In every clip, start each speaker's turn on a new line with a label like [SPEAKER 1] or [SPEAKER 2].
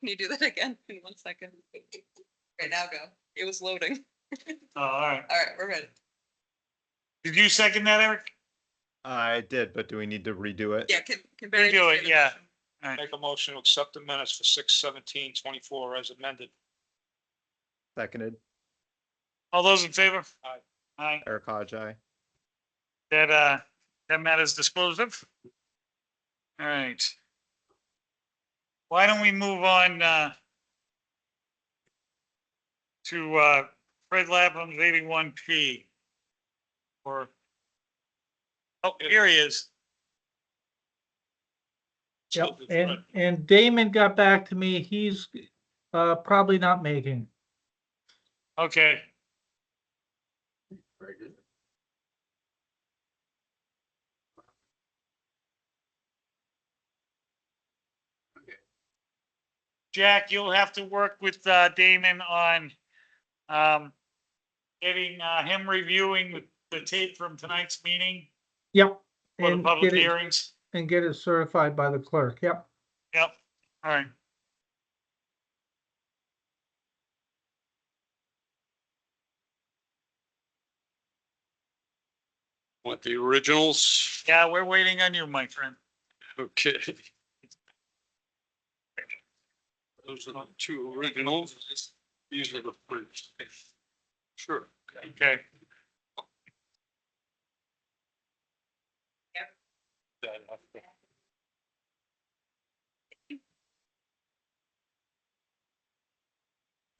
[SPEAKER 1] Can you do that again in one second? Okay, now go. It was loading.
[SPEAKER 2] Oh, all right.
[SPEAKER 1] All right, we're ready.
[SPEAKER 2] Did you second that, Eric?
[SPEAKER 3] I did, but do we need to redo it?
[SPEAKER 1] Yeah, can, can. Barry
[SPEAKER 2] do
[SPEAKER 1] just
[SPEAKER 2] it,
[SPEAKER 1] get a
[SPEAKER 2] yeah.
[SPEAKER 1] motion?
[SPEAKER 4] Make a motion to accept the minutes for six seventeen twenty-four as amended.
[SPEAKER 3] Seconded,
[SPEAKER 2] All those in favor?
[SPEAKER 4] Aye.
[SPEAKER 2] Aye.
[SPEAKER 3] Eric Hodge, aye.
[SPEAKER 2] That, uh, that matter's disposed of. All right. Why don't we move on, uh, to, uh, Fred Lapham's eighty-one P? Or, oh, here he is.
[SPEAKER 5] Yep,
[SPEAKER 4] Absolutely
[SPEAKER 5] and,
[SPEAKER 4] correct.
[SPEAKER 5] and Damon got back to me. He's uh, probably not making.
[SPEAKER 2] Okay. Jack, you'll have to work with uh, Damon on um, getting uh, him reviewing the- the tape from tonight's meeting
[SPEAKER 5] Yep.
[SPEAKER 2] for the
[SPEAKER 5] and
[SPEAKER 2] public
[SPEAKER 5] get it-
[SPEAKER 2] hearings.
[SPEAKER 5] And get it certified by the clerk. Yep.
[SPEAKER 2] Yep, all right.
[SPEAKER 4] Want the originals?
[SPEAKER 2] Yeah, we're waiting on you, my friend.
[SPEAKER 4] Okay. Those are the two originals. These are the prints. Sure.
[SPEAKER 2] Okay,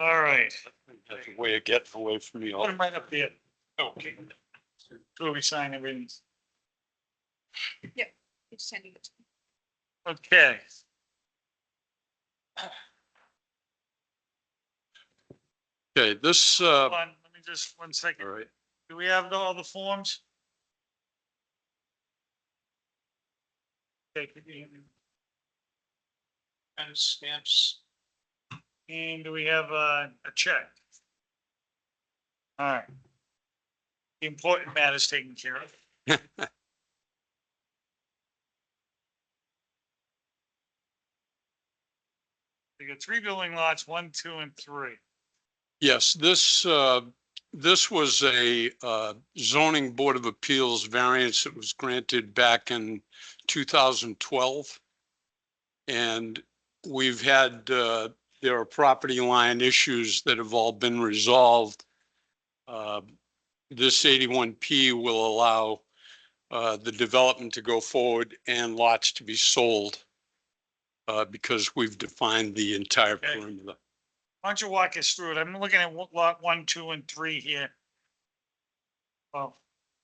[SPEAKER 2] all right.
[SPEAKER 4] That's a way of getting away from me. all.
[SPEAKER 2] Put him right up there.
[SPEAKER 4] Okay.
[SPEAKER 2] So we sign everything.
[SPEAKER 1] It's sending it.
[SPEAKER 2] Okay.
[SPEAKER 4] Okay, this, uh,
[SPEAKER 2] Hold on, let me just, one
[SPEAKER 4] all
[SPEAKER 2] second.
[SPEAKER 4] right,
[SPEAKER 2] Do we have the- all the forms? Okay, could you hand me-
[SPEAKER 4] and stamps.
[SPEAKER 2] And do we have a, a check? All right. The important matter's taken care of. We got three building lots, one, two, and three.
[SPEAKER 4] Yes, this, uh, this was a uh, zoning board of appeals variance that was granted back in 2012. And we've had, uh, there are property line issues that have all been resolved. Uh, This 81P will allow uh, the development to go forward and lots to be sold uh, because we've defined the entire
[SPEAKER 2] Okay.
[SPEAKER 4] perimeter.
[SPEAKER 2] Why don't you walk us through it? I'm looking at wa- lot one, two, and three here. Well,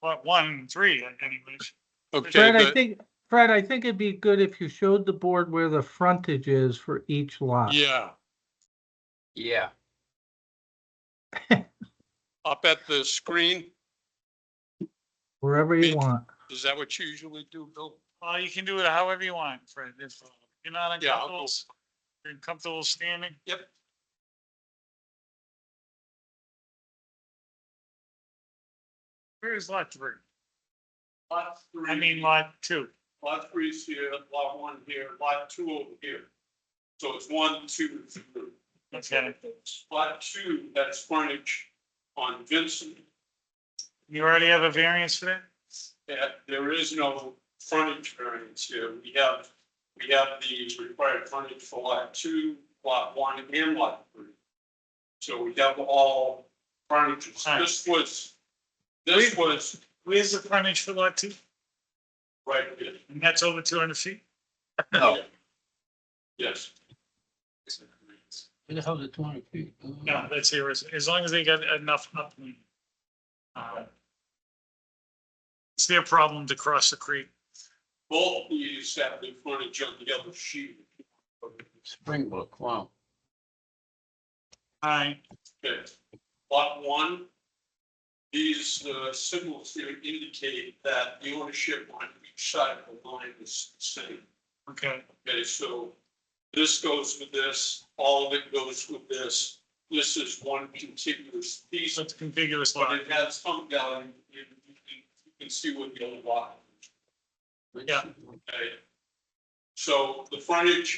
[SPEAKER 2] lot one and three anyways.
[SPEAKER 4] Okay.
[SPEAKER 5] Fred,
[SPEAKER 4] the-
[SPEAKER 5] I think, Fred, I think it'd be good if you showed the board where the frontage is for each lot.
[SPEAKER 4] Yeah. Yeah. Up at the screen,
[SPEAKER 5] Wherever
[SPEAKER 4] Me-
[SPEAKER 5] you want.
[SPEAKER 4] is that what you usually do, Bill?
[SPEAKER 2] Well, you can do it however you want, Fred. If uh, you're not
[SPEAKER 4] Yeah, I'll go-
[SPEAKER 2] uncomfortable, you're comfortable standing.
[SPEAKER 4] Yep.
[SPEAKER 2] Where is lot three?
[SPEAKER 4] Lot three.
[SPEAKER 2] I mean, lot two.
[SPEAKER 4] Lot three's here, lot one here, lot two over here. So it's one, two, three.
[SPEAKER 2] Okay,
[SPEAKER 4] Lot two, that's frontage on Vincent.
[SPEAKER 2] you already have a variance for that?
[SPEAKER 4] Yeah, there is no frontage variance here. We have, we have the required frontage for lot two, lot one, and lot three. So we have all frontages.
[SPEAKER 2] Right.
[SPEAKER 4] This was, this was
[SPEAKER 2] Where's the frontage for lot two?
[SPEAKER 4] right here.
[SPEAKER 2] And that's over two hundred feet?
[SPEAKER 4] No. Yes.
[SPEAKER 6] Where the hell's it two hundred feet?
[SPEAKER 2] No, that's here, as, as long as they got enough upland. Uh, It's their problem to cross the creek.
[SPEAKER 4] Both these have the frontage on the other sheet.
[SPEAKER 6] Springbrook, wow.
[SPEAKER 2] All right,
[SPEAKER 4] Okay. Lot one, these uh, symbols here indicate that the ownership on each side of the line is the same.
[SPEAKER 2] okay,
[SPEAKER 4] Okay, so this goes with this, all of it goes with this. This is one contiguous piece,
[SPEAKER 2] so it's contiguous
[SPEAKER 4] but
[SPEAKER 2] lot.
[SPEAKER 4] it has some value. You you can, you can see what the other lot,
[SPEAKER 2] Yeah.
[SPEAKER 4] okay? So the frontage